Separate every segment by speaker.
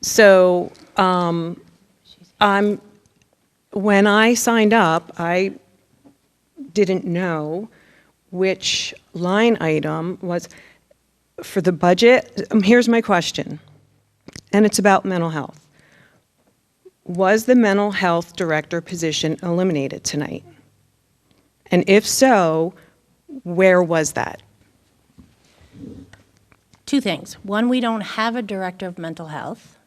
Speaker 1: So um, I'm, when I signed up, I didn't know which line item was, for the budget, um, here's my question, and it's about mental health. Was the mental health director position eliminated tonight? And if so, where was that?
Speaker 2: Two things. One, we don't have a director of mental health,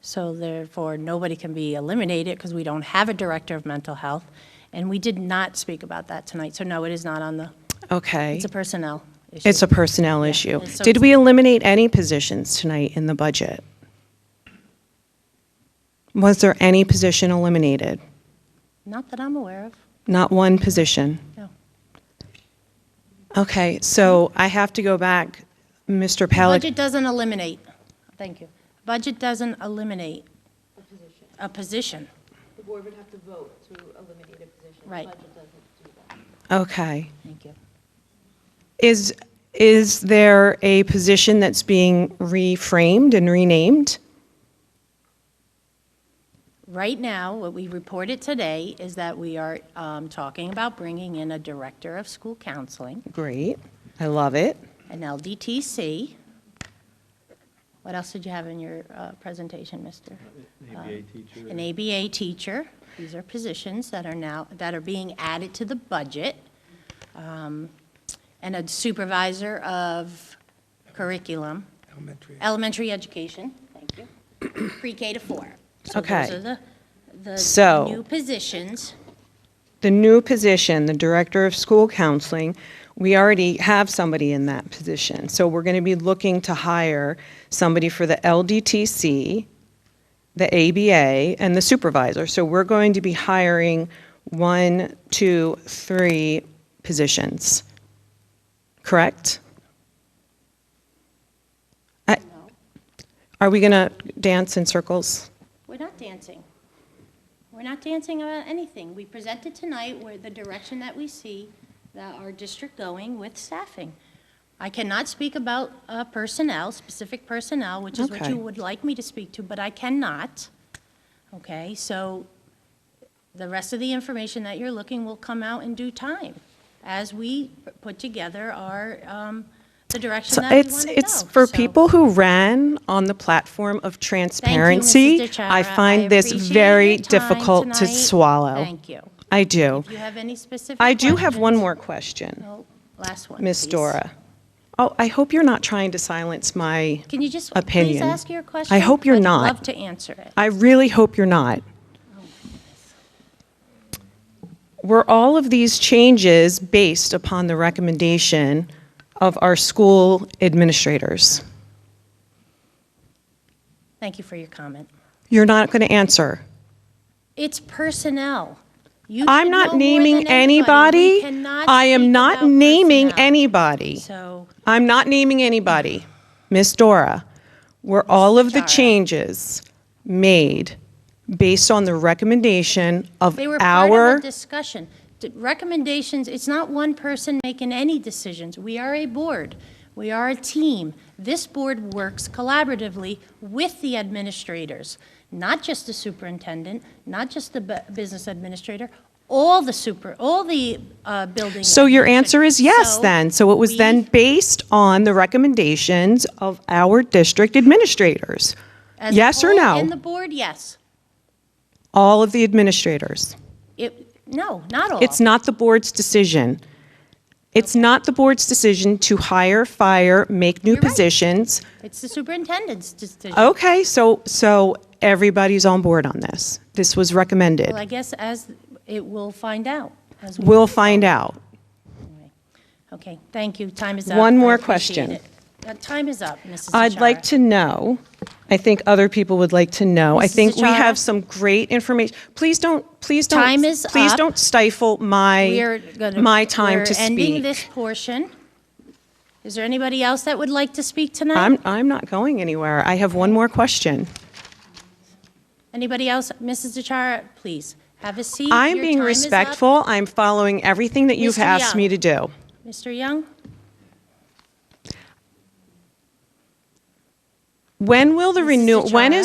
Speaker 2: so therefore nobody can be eliminated because we don't have a director of mental health. And we did not speak about that tonight, so no, it is not on the,
Speaker 1: Okay.
Speaker 2: it's a personnel issue.
Speaker 1: It's a personnel issue.
Speaker 2: and so
Speaker 1: Did
Speaker 2: it's-
Speaker 1: we eliminate any positions tonight in the budget? Was there any position eliminated?
Speaker 2: Not that I'm aware of,
Speaker 1: Not one position?
Speaker 2: no.
Speaker 1: Okay, so I have to go back, Mr. Pellet.
Speaker 2: Budget doesn't eliminate, thank you. Budget doesn't eliminate a position.
Speaker 3: The board would have to vote to eliminate a position. The
Speaker 2: Right.
Speaker 3: Budget doesn't do that.
Speaker 1: Okay.
Speaker 2: Thank you.
Speaker 1: Is, is there a position that's being reframed and renamed?
Speaker 2: Right now, what we reported today is that we are um, talking about bringing in a director of school counseling.
Speaker 1: Great, I love it.
Speaker 2: an LDTC. What else did you have in your uh, presentation, Mr.?
Speaker 4: ABA teacher.
Speaker 2: An ABA teacher. These are positions that are now, that are being added to the budget. Um, And a supervisor of curriculum. Elementary. Elementary education, thank you. Pre-K to four. So
Speaker 1: Okay.
Speaker 2: those are the, the
Speaker 1: So-
Speaker 2: new positions.
Speaker 1: The new position, the Director of School Counseling, we already have somebody in that position. So we're going to be looking to hire somebody for the LDTC, the ABA, and the supervisor. So we're going to be hiring one, two, three positions. Correct? I- Are we going to dance in circles?
Speaker 2: We're not dancing. We're not dancing about anything. We presented tonight where the direction that we see that our district going with staffing. I cannot speak about uh, personnel, specific personnel, which is what
Speaker 1: Okay.
Speaker 2: you would like me to speak to, but I cannot. Okay, so the rest of the information that you're looking will come out in due time as we p- put together our, um, the direction
Speaker 1: So
Speaker 2: that we want
Speaker 1: it's,
Speaker 2: to go.
Speaker 1: it's for
Speaker 2: So-
Speaker 1: people who ran on the platform of transparency. I
Speaker 2: DeChara. I
Speaker 1: find this
Speaker 2: appreciate
Speaker 1: very
Speaker 2: your time
Speaker 1: difficult to
Speaker 2: tonight.
Speaker 1: swallow.
Speaker 2: Thank you.
Speaker 1: I do.
Speaker 2: Do you have any specific?
Speaker 1: I do have one
Speaker 2: questions?
Speaker 1: more question,
Speaker 2: No, Last one.
Speaker 1: Ms.
Speaker 2: please.
Speaker 1: Dora. Oh, I hope you're not trying to silence my,
Speaker 2: Can you just please
Speaker 1: Opinion.
Speaker 2: ask your question?
Speaker 1: hope you're not.
Speaker 2: I'd love to answer it.
Speaker 1: I really hope you're not. Were all of these changes based upon the recommendation of our school administrators?
Speaker 2: Thank you for your comment.
Speaker 1: You're not going to answer.
Speaker 2: It's personnel. You
Speaker 1: I'm
Speaker 2: should know
Speaker 1: not
Speaker 2: more
Speaker 1: naming
Speaker 2: than anybody. We
Speaker 1: anybody.
Speaker 2: cannot
Speaker 1: I am
Speaker 2: speak
Speaker 1: not
Speaker 2: about
Speaker 1: naming
Speaker 2: personnel.
Speaker 1: anybody.
Speaker 2: So,
Speaker 1: I'm not naming anybody. Miss Dora, were all of the
Speaker 2: Dara.
Speaker 1: changes made based on the recommendation of
Speaker 2: they were part
Speaker 1: our,
Speaker 2: of a discussion. D- Recommendations, it's not one person making any decisions. We are a board. We are a team. This board works collaboratively with the administrators, not just the superintendent, not just the bu- business administrator, all the super, all the uh, building.
Speaker 1: so your answer is yes
Speaker 2: So
Speaker 1: then? So it was
Speaker 2: we-
Speaker 1: then based on the recommendations of our district administrators?
Speaker 2: as a
Speaker 1: Yes or
Speaker 2: whole And the
Speaker 1: no?
Speaker 2: board, yes.
Speaker 1: All of the administrators?
Speaker 2: It, no, not all.
Speaker 1: It's not the board's decision. It's not the board's decision to hire, fire, make new
Speaker 2: You're right.
Speaker 1: positions.
Speaker 2: It's the superintendent's decision.
Speaker 1: Okay, so, so everybody's on board on this. This was recommended.
Speaker 2: Well, I guess as, it will find out. as we-
Speaker 1: We'll find out.
Speaker 2: Okay, thank you. Time is up.
Speaker 1: One
Speaker 2: I
Speaker 1: more
Speaker 2: appreciate
Speaker 1: question.
Speaker 2: it. Uh, Time is up, Mrs.
Speaker 1: I'd like
Speaker 2: Nechara.
Speaker 1: to know, I think other people would like to know. I
Speaker 2: Mrs.
Speaker 1: think we
Speaker 2: Zachara?
Speaker 1: have some great information. Please don't, please don't.
Speaker 2: Time is
Speaker 1: Please
Speaker 2: up.
Speaker 1: don't stifle
Speaker 2: We are
Speaker 1: my,
Speaker 2: gonna-
Speaker 1: my time to
Speaker 2: We're ending
Speaker 1: speak.
Speaker 2: this portion. Is there anybody else that would like to speak tonight?
Speaker 1: I'm, I'm not going anywhere. I have one more question.
Speaker 2: Anybody else? Mrs. Dechara, please, have a seat.
Speaker 1: I'm
Speaker 2: Your
Speaker 1: being
Speaker 2: time is up.
Speaker 1: respectful. I'm following everything that you've
Speaker 2: Mr.
Speaker 1: asked me
Speaker 2: Young.
Speaker 1: to do.
Speaker 2: Mr. Young?
Speaker 1: When will the
Speaker 2: Mrs.
Speaker 1: renewal, when is
Speaker 2: Tachara?